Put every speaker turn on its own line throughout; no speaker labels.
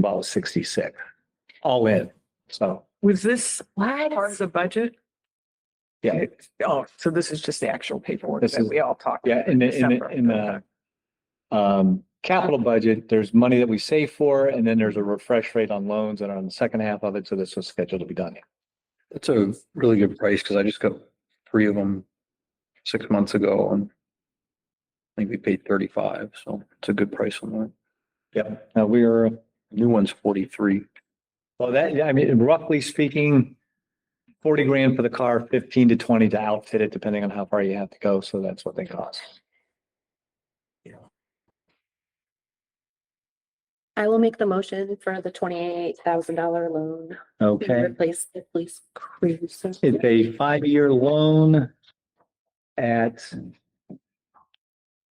about sixty-six, all in, so,
Was this part of
What?
the budget?
yeah.
It- Oh, so this is just the actual paperwork
This
that
is-
we all talked.
Yeah,
about
in the, in the,
December.
in the um, capital budget, there's money that we save for, and then there's a refresh rate on loans and on the second half of it, so this was scheduled to be done.
That's a really good price because I just got three of them six months ago and I think we paid thirty-five, so it's a good price on that.
Yep. Now, we are,
New one's forty-three.
well, that, yeah, I mean, roughly speaking, forty grand for the car, fifteen to twenty to outfit it, depending on how far you have to go, so that's what they cost.
I will make the motion for the twenty-eight thousand dollar loan. to
Okay,
Replace the police cruiser.
it's a five-year loan at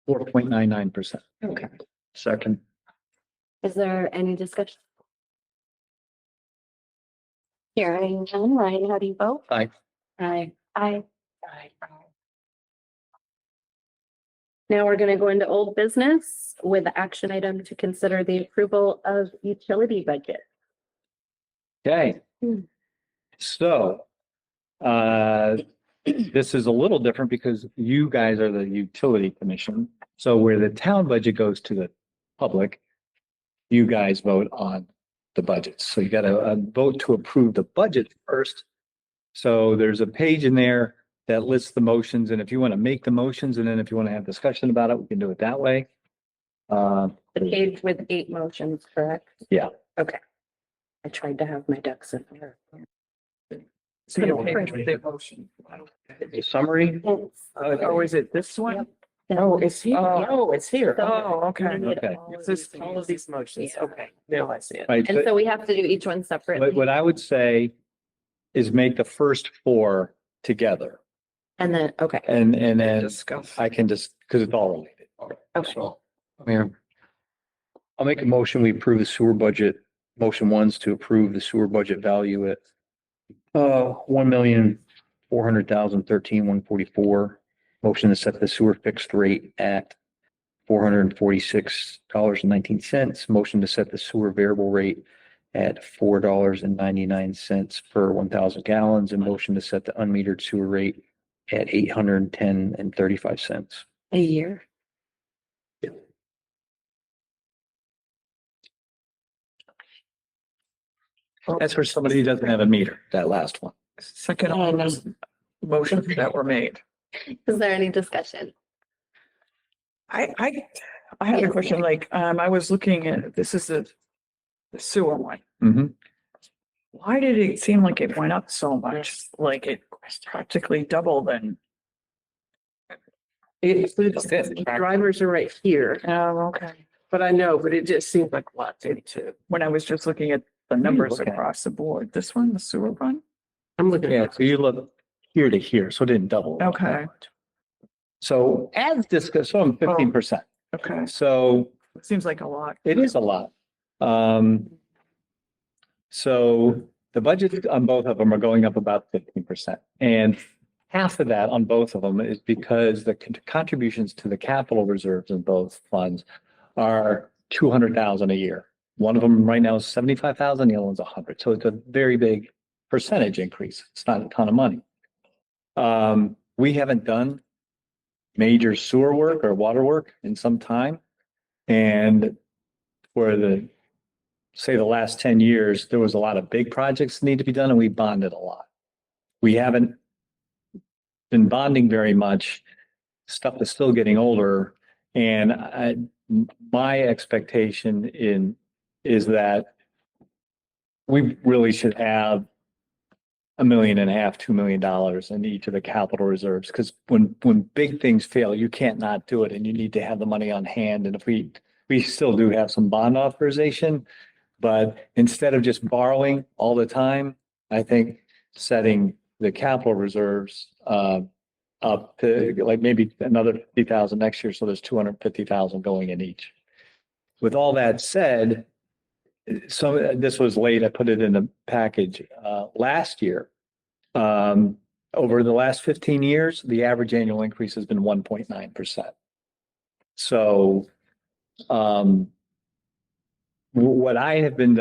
four point nine nine percent.
Okay.
Second.
Is there any discussion? Hearing none, Ryan, how do you vote?
Aye.
Aye. Aye. Now we're gonna go into old business with the action item to consider the approval of utility budget.
Okay.
Hmm.
So, uh, this is a little different because you guys are the utility commission. So where the town budget goes to the public, you guys vote on the budget. So you gotta uh, vote to approve the budget first. So there's a page in there that lists the motions and if you want to make the motions and then if you want to have discussion about it, we can do it that way. Uh,
The page with eight motions, correct?
Yeah.
Okay. I tried to have my ducks in order.
It's in the paper, the motion.
Summary?
It's-
Uh, Oh, is it this one? Oh, it's here.
Yeah.
Oh, it's here.
So-
Oh, okay.
You need
Okay.
all of
It's just
these
all of
things.
these motions.
Yeah.
Okay, now I see it.
right,
And
but-
so we have to do each one separately.
What, what I would say is make the first four together
And then, okay,
and, and then
Discuss.
I can just, because it's all related.
okay.
So, I mean, I'll make a motion, we approve the sewer budget, motion ones to approve the sewer budget value at uh, one million, four hundred thousand, thirteen, one forty-four. Motion to set the sewer fixed rate at four hundred and forty-six dollars and nineteen cents. Motion to set the sewer variable rate at four dollars and ninety-nine cents per one thousand gallons and motion to set the unmetered sewer rate at eight hundred and ten and thirty-five cents.
A year.
That's for somebody who doesn't have a meter, that last one.
Second, all those motions that were made.
Is there any discussion?
I, I, I have a
Yes.
question, like, um, I was looking at, this is the the sewer one.
Mhm.
Why did it seem like it went up so much? Like it practically doubled and.
It,
That's it.
drivers are right here,
Oh, okay.
but I know, but it just seems like a lot to to-
When I was just looking at the numbers
looking at?
across the board, this one, the sewer one?
I'm looking
Yeah,
at,
so you look here to here, so it didn't double.
Okay.
So as discussed, so I'm fifteen percent.
Okay,
So
seems like a lot.
It is a lot. Um, so the budget on both of them are going up about fifteen percent. And half of that on both of them is because the con- contributions to the capital reserves in both funds are two hundred thousand a year. One of them right now is seventy-five thousand, the other one's a hundred. So it's a very big percentage increase. It's not a ton of money. Um, we haven't done major sewer work or water work in some time. And for the, say, the last ten years, there was a lot of big projects that need to be done and we bonded a lot. We haven't been bonding very much. Stuff is still getting older. And I, my expectation in, is that we really should have a million and a half, two million dollars in each of the capital reserves. Cause when, when big things fail, you can't not do it and you need to have the money on hand. And if we we still do have some bond authorization. But instead of just borrowing all the time, I think setting the capital reserves uh up to like maybe another fifty thousand next year, so there's two hundred fifty thousand going in each. With all that said, so uh, this was late, I put it in the package uh last year. Um, over the last fifteen years, the average annual increase has been one point nine percent. So um, wh- what I have been